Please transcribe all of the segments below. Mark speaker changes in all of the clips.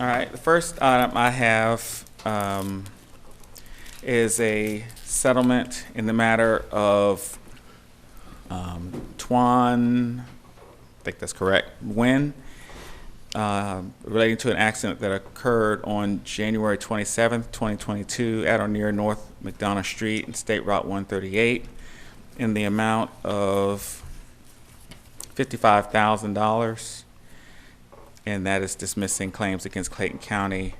Speaker 1: All right, the first item I have um, is a settlement in the matter of um, Twan, I think that's correct, Nguyen, um, relating to an accident that occurred on January 27th, 2022, at or near North McDonough Street and State Route 138, in the amount of $55,000 and that is dismissing claims against Clayton County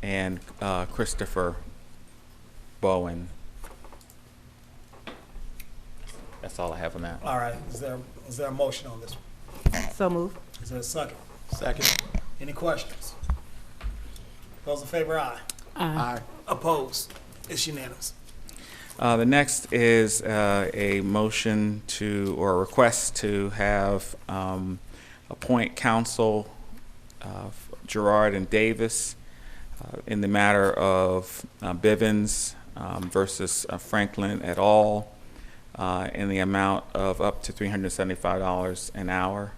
Speaker 1: and uh, Christopher Bowen. That's all I have on that.
Speaker 2: All right, is there, is there a motion on this?
Speaker 3: So move.
Speaker 2: Is there a second? Second. Any questions? Those in favor, aye. Aye. Opposed? It's unanimous.
Speaker 1: Uh, The next is uh, a motion to, or a request to have um, appoint counsel uh, Gerard and Davis uh, in the matter of uh, Bivens um, versus uh, Franklin et al. uh, in the amount of up to $375 an hour.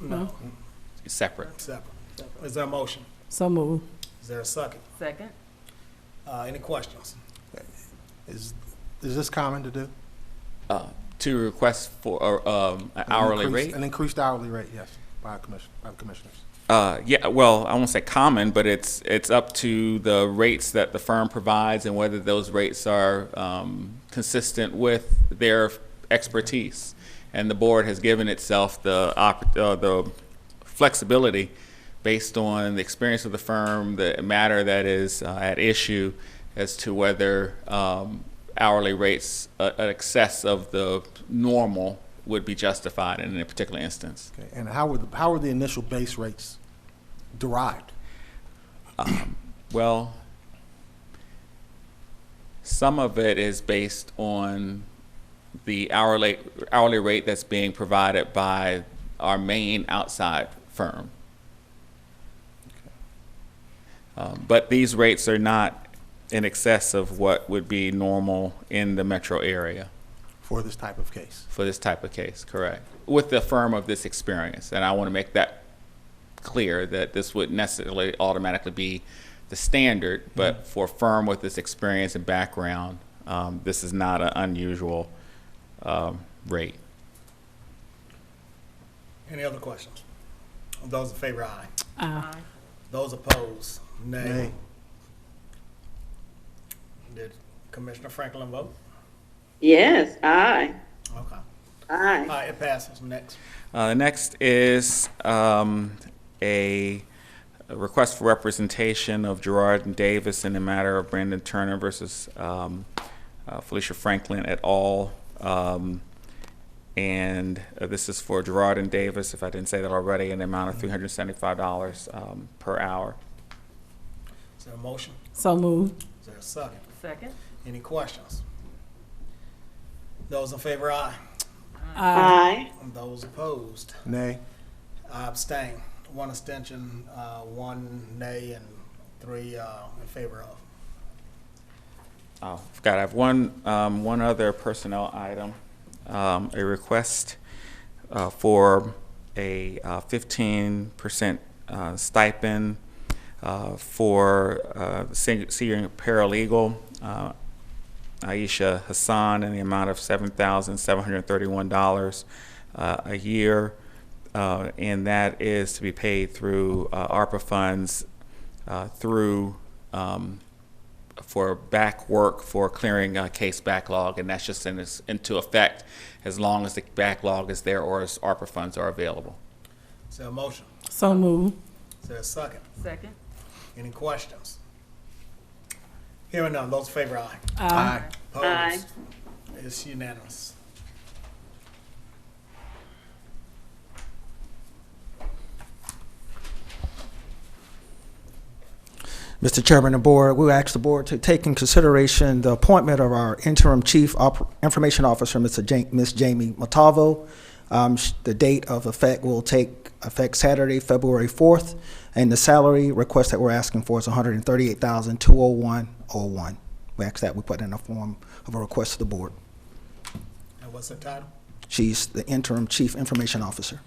Speaker 2: No.
Speaker 1: Separate.
Speaker 2: Separate. Is there a motion?
Speaker 3: So move.
Speaker 2: Is there a second?
Speaker 4: Second?
Speaker 2: Uh, any questions?
Speaker 5: Is, is this common to do?
Speaker 1: To request for uh, um, an
Speaker 5: An
Speaker 1: hourly
Speaker 5: increase-
Speaker 1: rate?
Speaker 5: An increased hourly rate, yes, by a commission, by the commissioners.
Speaker 1: Uh, yeah, well, I won't say common, but it's, it's up to the rates that the firm provides and whether those rates are, um, consistent with their expertise. And the board has given itself the op, uh, the flexibility based on the experience of the firm, the matter that is uh, at issue as to whether, um, hourly rates, uh, in excess of the normal would be justified in a particular instance.
Speaker 5: Okay, and how were, the- how were the initial base rates derived?
Speaker 1: Well, some of it is based on the hourly, hourly rate that's being provided by our main outside firm. Um, But these rates are not in excess of what would be normal in the metro area
Speaker 5: For this type of case?
Speaker 1: for this type of case, correct? With the firm of this experience, and I want to make that clear that this would necessarily automatically be the standard, but for a firm with this experience and background, um, this is not an unusual um, rate.
Speaker 2: Any other questions? Those in favor, aye.
Speaker 3: Aye.
Speaker 2: Those opposed, nay.
Speaker 5: Nay.
Speaker 2: Did Commissioner Franklin vote?
Speaker 6: Yes, aye,
Speaker 2: Okay. All
Speaker 6: aye,
Speaker 2: right, it passes. Next.
Speaker 1: Uh, the next is um, a a request for representation of Gerard and Davis in the matter of Brandon Turner versus um, uh, Felicia Franklin et al. Um, and uh, this is for Gerard and Davis, if I didn't say that already, in the amount of $375 um, per hour.
Speaker 2: Is there a motion?
Speaker 3: So move.
Speaker 2: Is there a second?
Speaker 4: Second?
Speaker 2: Any questions? Those in favor, aye.
Speaker 6: aye,
Speaker 2: Those opposed,
Speaker 5: Nay?
Speaker 2: I abstain. One abstention, uh, one nay, and three uh, in favor of.
Speaker 1: Oh, forgot, I have one, um, one other personnel item, um, a request, uh, for a uh, fifteen percent, uh, stipend, uh, for, uh, sen- senior paralegal, uh, Aisha Hassan in the amount of seven thousand seven hundred thirty-one dollars, uh, a year. Uh, and that is to be paid through, uh, ARPA funds, uh, through, um, for back work for clearing a case backlog, and that's just in, its- into effect as long as the backlog is there or as ARPA funds are available.
Speaker 2: Is there a motion?
Speaker 3: So move.
Speaker 2: Is there a second?
Speaker 4: Second?
Speaker 2: Any questions? Hearing none, those in favor, aye.
Speaker 5: Aye.
Speaker 6: Aye.
Speaker 2: Opposed? It's unanimous.
Speaker 7: Mr. Chairman and Board, we ask the Board to take in consideration the appointment of our interim Chief Op- Information Officer, Mr. Ja- Ms. Jamie Matavo. Um, sh- The date of effect will take effect Saturday, February 4th, and the salary request that we're asking for is $138,201.01. We ask that we put in a form of a request to the Board.
Speaker 2: And what's the title?
Speaker 7: She's the interim Chief Information Officer.